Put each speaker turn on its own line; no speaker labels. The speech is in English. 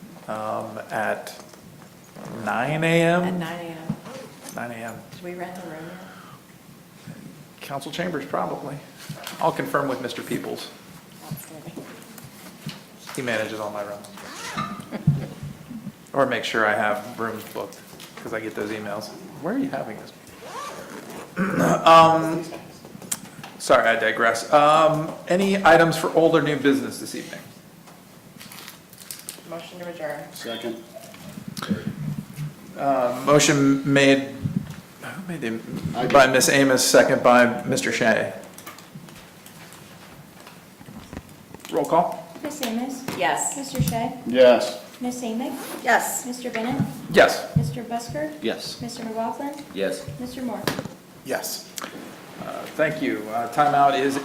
um, at nine AM?
At nine AM.
Nine AM.
Did we rent a room yet?
Council chambers, probably. I'll confirm with Mr. Peoples.
That's gonna be-
He manages all my rooms. Or make sure I have rooms booked, because I get those emails. Where are you having this? Um, Sorry, I digress. Um, Any items for old or new business this evening?
Motion to adjourn.
Second.
Uh, Motion made, who made
I
the,
did.
by Ms. Amos, second by Mr. Shea. Roll call?
Miss Amos?
Yes.
Mr. Shea?
Yes.
Miss Amick?
Yes.
Mr. Bennett?
Yes.
Mr. Busker?
Yes.
Mr. McLaughlin?
Yes.
Mr. Moore?
Yes. Thank you. Uh, Timeout is